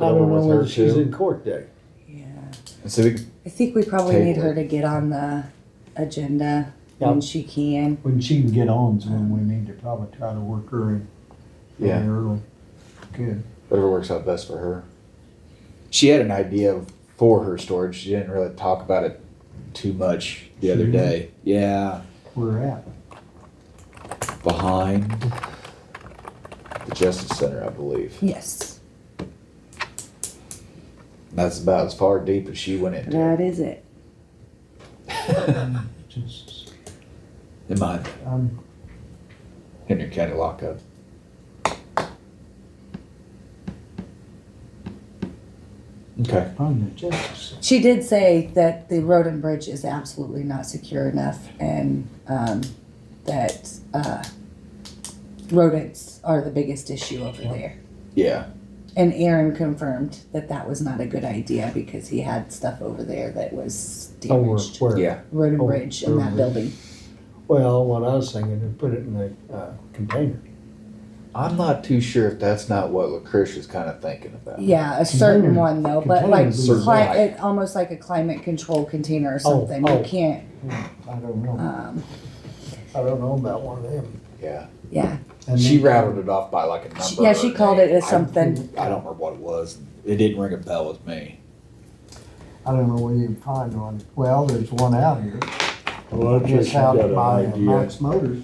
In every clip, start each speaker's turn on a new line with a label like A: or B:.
A: I
B: Another
A: don't know
B: one with her
A: whether she's
B: too.
A: in court day.
C: Yeah.
B: And so we can
C: I think we probably
B: Take
C: need
B: it.
C: her to get on the agenda
A: Yeah.
C: when she can.
D: When she can get on, is when we need to probably try to work her in.
B: Yeah.
D: Early. Good.
B: whatever works out best for her. She had an idea of- for her storage. She didn't really talk about it too much the other
D: She
B: day. Yeah,
D: We're at.
B: behind the Justice Center, I believe.
C: Yes.
B: And That's about as far deep as she went into.
C: That is it.
B: it.
D: Just,
B: In mine,
D: um,
B: Henry County lockup. Okay.
D: on the justice.
C: She did say that the road and bridge is absolutely not secure enough and um, that uh, rodents are the biggest issue over there.
B: Yeah.
C: And Aaron confirmed that that was not a good idea because he had stuff over there that was
D: Oh,
A: Over
C: damaged.
A: where?
B: Yeah.
C: Road and
A: Oh,
C: bridge in
A: road
C: that
A: and
C: building.
A: Well, what I was thinking, is put it in a uh, container.
B: I'm not too sure if that's not what Lucretia is kind of thinking about.
C: Yeah, a certain
D: Container-
C: one though, but
D: container
C: like,
D: is a
C: cli-
B: lot.
C: it, almost like a climate control container or
A: Oh,
C: something.
A: oh.
C: You can't,
D: I don't know.
C: um,
A: I don't know about one of them.
B: Yeah.
C: yeah.
D: And
B: she
D: then-
B: rattled it off by like a number.
C: um, She- Yeah, she
B: or
C: called
B: name.
C: it as
B: I-
C: something.
B: I don't remember what it was. It didn't ring a bell with me.
D: I don't know where you can find one. Well, there's one out here.
A: Well,
D: It's out by Max Motors,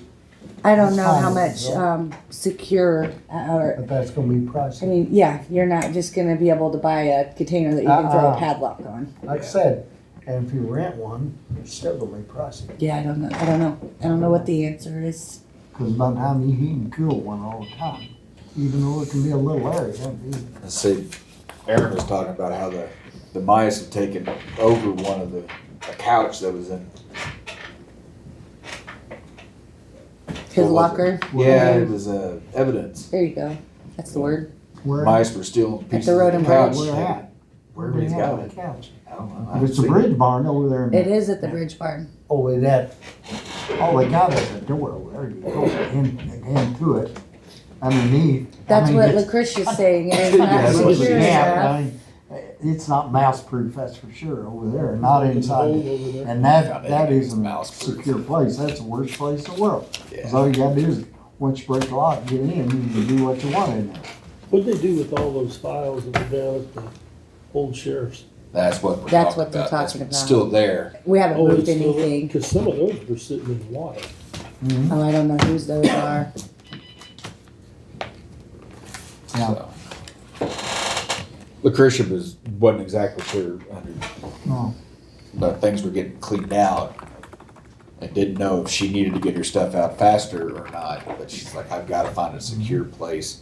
C: I don't know how
D: Fine,
C: much,
D: yeah.
C: um, secure, uh, or,
D: but that's gonna be
C: I
D: pricey.
C: mean, yeah, you're not just gonna be able to buy a container that you can throw a
D: Uh-uh.
C: padlock on.
D: Like I said, and if you rent one, it's still gonna be pricey.
C: Yeah, I don't know, I don't know, I don't know what the answer is.
D: Cause by the time you heat and cool one all the time, even though it can be a little area, it'd be
B: Let's see, Aaron was talking about how the, the mice had taken over one of the, a couch that was in.
C: His
B: what was it?
C: locker,
B: Yeah, it was, uh, evidence.
C: there you go, that's the word.
D: where.
B: Mice were stealing pieces of
C: road
B: the
C: and
B: couch.
C: bridge.
D: Where at?
B: Wherever he's
D: Yeah,
B: got
D: the
B: it.
D: Couch.
B: I don't know. I
D: If it's a
B: haven't seen
D: bridge barn over there. in-
C: It is at the Bridge Barn.
D: Oh, it that, all they got is a door over there, you go in, into it, underneath. I
C: That's
D: mean,
C: what
D: it's-
C: Lucretia's saying, it is
B: Yeah,
C: not
B: that's what she
C: secure
B: said.
D: Yeah,
C: enough.
D: I mean, It's not mouse proof, that's for sure, over there, not inside.
A: Over there.
D: And
B: God,
D: that,
B: that
D: that
B: is
D: is a mouse
B: mouse-proof.
D: secure place, that's the worst place in the world.
B: Yeah.
D: Cause all you gotta do is, once you break the lock, get in, you can do what you want in there.
E: What'd they do with all those files that were down at the old sheriff's?
B: That's what we're
C: That's
B: talking
C: what they're
B: about. That's
C: talking about.
B: Still there.
C: We haven't
E: Oh,
C: moved
E: it's still-
C: anything.
E: Cause some of those were sitting in the water.
C: Oh, I don't know whose those are.
D: Yeah,
B: so. Lucretia was, wasn't exactly sure, under-
D: no,
B: but things were getting cleaned out. I didn't know if she needed to get her stuff out faster or not, but she's like, I've gotta find a secure place,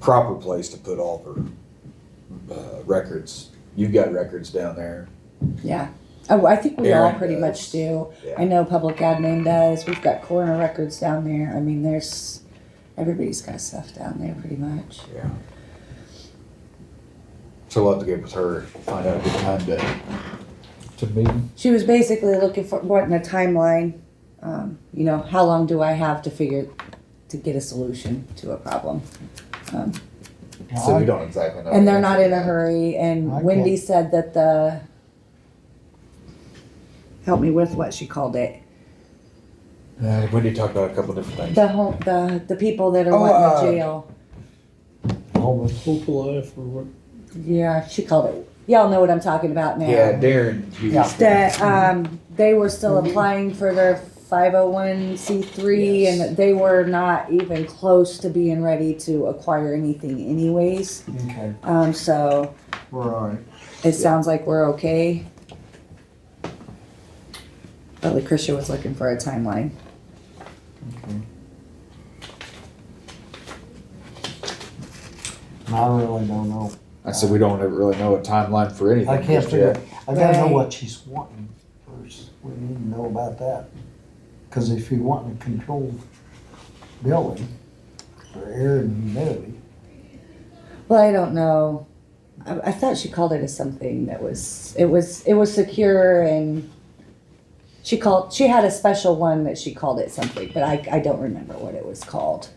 B: proper place to put all of her, uh, records. You've got records down there.
C: Yeah. Oh, I think we all
B: Aaron
C: pretty
B: does.
C: much do. I
B: Yeah.
C: know public admin does. We've got coroner records down there. I mean, there's, everybody's got stuff down there pretty much.
B: Yeah. So we'll have to get with her, find out a good time to, to meet.
C: She was basically looking for, wanting a timeline. Um, you know, how long do I have to figure, to get a solution to a problem? Um,
D: Yeah,
B: So we
D: I-
B: don't exactly know.
C: And they're not in a hurry, and
D: Okay.
C: Wendy said that the, help me with what she called it.
B: Uh, Wendy talked about a couple of different things.
C: The home, the, the people that are
B: Oh, uh,
C: wanting to jail.
E: Hope alive for what?
C: Yeah, she called it. Y'all know what I'm talking about now.
B: Yeah, Darren. Hughes.
D: Yeah.
C: That um, they were still applying for their 501c3
B: Yes.
C: and that they were not even close to being ready to acquire anything, anyways.
D: Okay,
C: Um, so
D: we're all right.
C: it sounds like we're okay. But Lucretia was looking for a timeline.
D: And I really don't know.
B: I said, we don't ever really know a timeline for anything.
D: I can't
B: just yet.
D: figure, I gotta know
C: Right.
D: what she's wanting first. We need to know about that. Cause if you want a controlled building for air and humidity,
C: Well, I don't know. I, I thought she called it as something that was it was it was secure and she called she had a special one that she called it something, but I I don't remember what it was called.